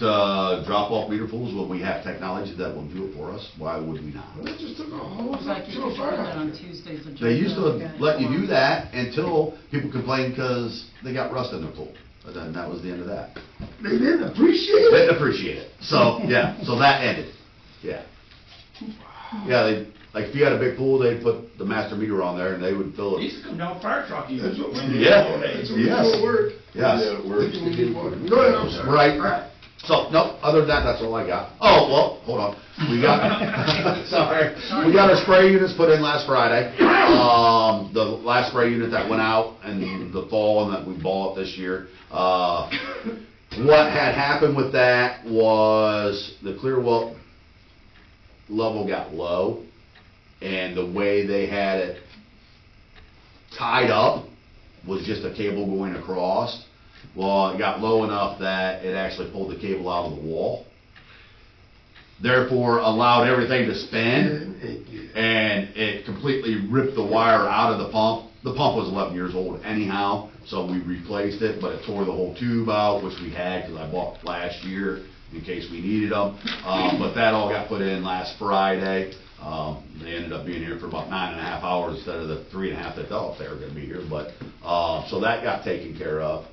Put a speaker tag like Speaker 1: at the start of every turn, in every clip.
Speaker 1: uh, drop-off meter pools when we have technology that will do it for us? Why would we not?
Speaker 2: They just took a whole
Speaker 3: Looks like
Speaker 2: lot to
Speaker 3: you
Speaker 2: a
Speaker 3: could put
Speaker 2: fire
Speaker 3: that on
Speaker 2: hydrant.
Speaker 3: Tuesday's agenda.
Speaker 1: They used to let you do that until people complained because they got rust in their pool. But then that was the end of that.
Speaker 2: They didn't appreciate
Speaker 1: Didn't
Speaker 2: it.
Speaker 1: appreciate it. So, yeah, so that ended. Yeah. Yeah, they, like, if you had a big pool, they'd put the master meter on there and they would fill
Speaker 4: They
Speaker 1: it.
Speaker 4: used to come down fire truck even.
Speaker 2: That's what we did.
Speaker 1: Yeah.
Speaker 2: That's what we
Speaker 1: Yes.
Speaker 2: did at work.
Speaker 1: Yes.
Speaker 5: Yeah, it works.
Speaker 2: That's what we did at work. Go ahead, I'm sorry.
Speaker 1: Right, right. So, no, other than that, that's all I got. Oh, well, hold on. We got, sorry, we got our spray units put in last Friday. Um, the last spray unit that went out in the fall and that we bought this year. Uh, what had happened with that was the clear well level got low and the way they had it tied up was just a cable going across. Well, it got low enough that it actually pulled the cable out of the wall. Therefore allowed everything to spin
Speaker 2: And it did.
Speaker 1: and it completely ripped the wire out of the pump. The pump was eleven years old anyhow, so we replaced it, but it tore the whole tube out, which we had, cause I bought last year in case we needed them. Uh, but that all got put in last Friday. Um, they ended up being here for about nine and a half hours instead of the three and a half that thought they were gonna be here, but, uh, so that got taken care of.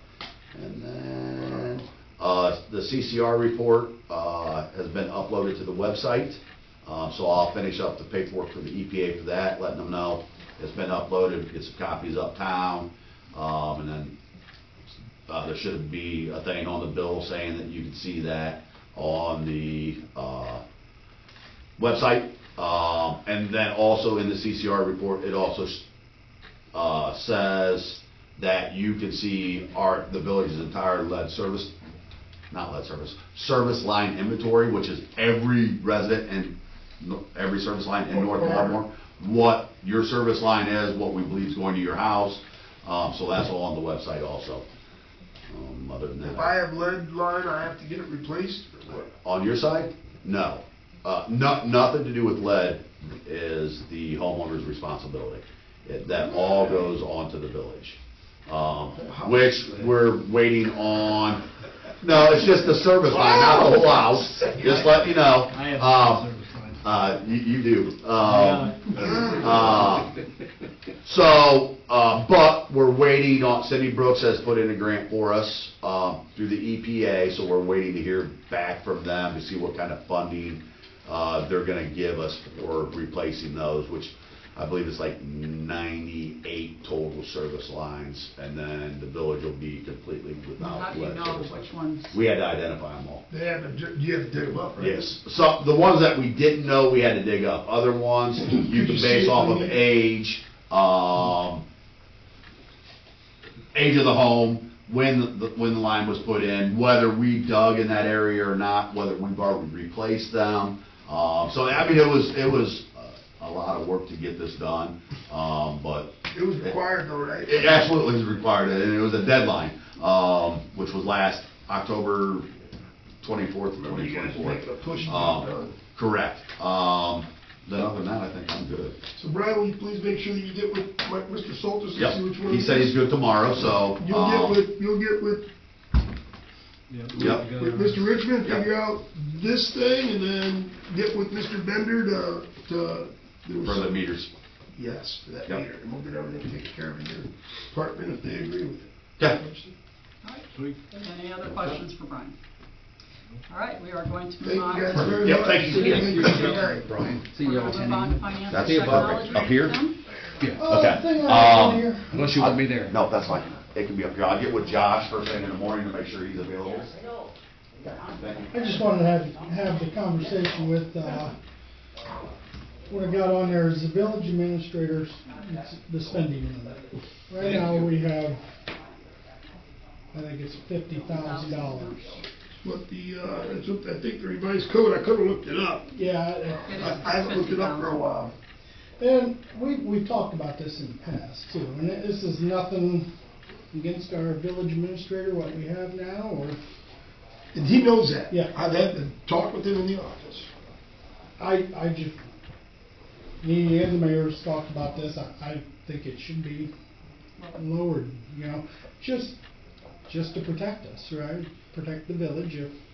Speaker 1: And then, uh, the CCR report, uh, has been uploaded to the website. Um, so I'll finish up the paperwork for the EPA for that, letting them know it's been uploaded, get some copies uptown. Um, and then, uh, there should be a thing on the bill saying that you can see that on the, uh, website. Um, and then also in the CCR report, it also, s- uh, says that you can see our, the village's entire lead service, not lead service, service line inventory, which is every resident and no- every service line in North Baltimore, what your service line is, what we believe is going to your house, um, so that's all on the website also. Um, other than that.
Speaker 2: If I have lead line, I have to get it replaced or what?
Speaker 1: On your side? No. Uh, no, nothing to do with lead is the homeowner's responsibility. It- That all goes on to the village. Um, which we're waiting on, no, it's just the service line, not the whole house, just let me know.
Speaker 6: I have
Speaker 1: Um,
Speaker 6: service lines.
Speaker 1: Uh, you, you do.
Speaker 6: Yeah.
Speaker 1: Um, uh, So, uh, but we're waiting on, Cindy Brooks has put in a grant for us um, through the EPA, so we're waiting to hear back from them to see what kind of funding uh, they're gonna give us for replacing those, which I believe is like ninety-eight total service lines, and then the village will be completely
Speaker 3: How
Speaker 1: without.
Speaker 3: do you
Speaker 1: lead
Speaker 3: know
Speaker 1: service lines.
Speaker 3: which ones?
Speaker 1: We had to identify them all.
Speaker 2: They have to, ju- you have to dig them up, right?
Speaker 1: Yes, so the ones that we didn't know, we had to dig up. Other ones, you
Speaker 2: Did
Speaker 1: can
Speaker 2: you
Speaker 1: base
Speaker 2: see
Speaker 1: off
Speaker 2: the
Speaker 1: of
Speaker 2: meter?
Speaker 1: age, um, age of the home, when, the when the line was put in, whether we dug in that area or not, whether we've already replaced them. Um, so, I mean, it was, it was uh, a lot of work to get this done, um, but
Speaker 2: It was required though, right?
Speaker 1: it absolutely was required, and it was a deadline, um, which was last October twenty-fourth of
Speaker 2: When
Speaker 1: twenty
Speaker 2: you guys
Speaker 1: twenty-four.
Speaker 2: make a push to get it
Speaker 1: Um,
Speaker 2: done.
Speaker 1: correct. Um, then other than that, I think I'm good.
Speaker 2: So Brian, will you please make sure that you get with Mike- Mr. Soltis and see which
Speaker 1: Yep,
Speaker 2: one?
Speaker 1: he
Speaker 2: it
Speaker 1: said
Speaker 2: is?
Speaker 1: he's good tomorrow, so,
Speaker 2: You'll get
Speaker 1: um,
Speaker 2: with, you'll get with,
Speaker 6: Yep.
Speaker 1: Yep.
Speaker 2: with Mr. Richmond,
Speaker 1: Yep.
Speaker 2: figure out this thing, and then get with Mr. Bender to, to. there was
Speaker 1: for the
Speaker 2: some-
Speaker 1: meters.
Speaker 2: Yes, for that
Speaker 1: Yep.
Speaker 2: meter, and we'll get everything taken care of in your department if they agree with it.
Speaker 1: Yeah.
Speaker 3: All right.
Speaker 6: Sweet.
Speaker 3: Any other questions for Brian? All right, we are going to
Speaker 2: Thank
Speaker 3: move
Speaker 2: you
Speaker 3: on.
Speaker 2: guys
Speaker 3: to-
Speaker 2: very
Speaker 1: Yep,
Speaker 2: much.
Speaker 1: thank you.
Speaker 2: Thank you. Good night.
Speaker 6: See you all
Speaker 3: We're gonna move on to
Speaker 6: ten.
Speaker 3: finance
Speaker 1: That's
Speaker 3: and
Speaker 1: the apartment.
Speaker 3: technology.
Speaker 1: Up here?
Speaker 3: system.
Speaker 1: Okay. Um,
Speaker 6: Unless you want me there.
Speaker 1: No, that's fine. It can be up here. I'll get with Josh first thing in the morning to make sure he's available. Thank you.
Speaker 7: I just wanted to have, have the conversation with, uh, what I got on there is the village administrators, it's the spending limit. Right now, we have, I think it's fifty thousand dollars.
Speaker 2: What the, uh, it's what, I think the revised code, I could've looked it up.
Speaker 7: Yeah,
Speaker 3: It is
Speaker 2: I I haven't looked it up for a
Speaker 3: $50,000.
Speaker 2: while.
Speaker 7: and we, we've talked about this in the past too, and this is nothing against our village administrator, what we have now, or,
Speaker 2: And he knows that.
Speaker 7: Yeah.
Speaker 2: I've had to talk with him in the office.
Speaker 7: I, I just, me and the mayor's talked about this, I, I think it should be lowered, you know, just, just to protect us, right? Protect the village if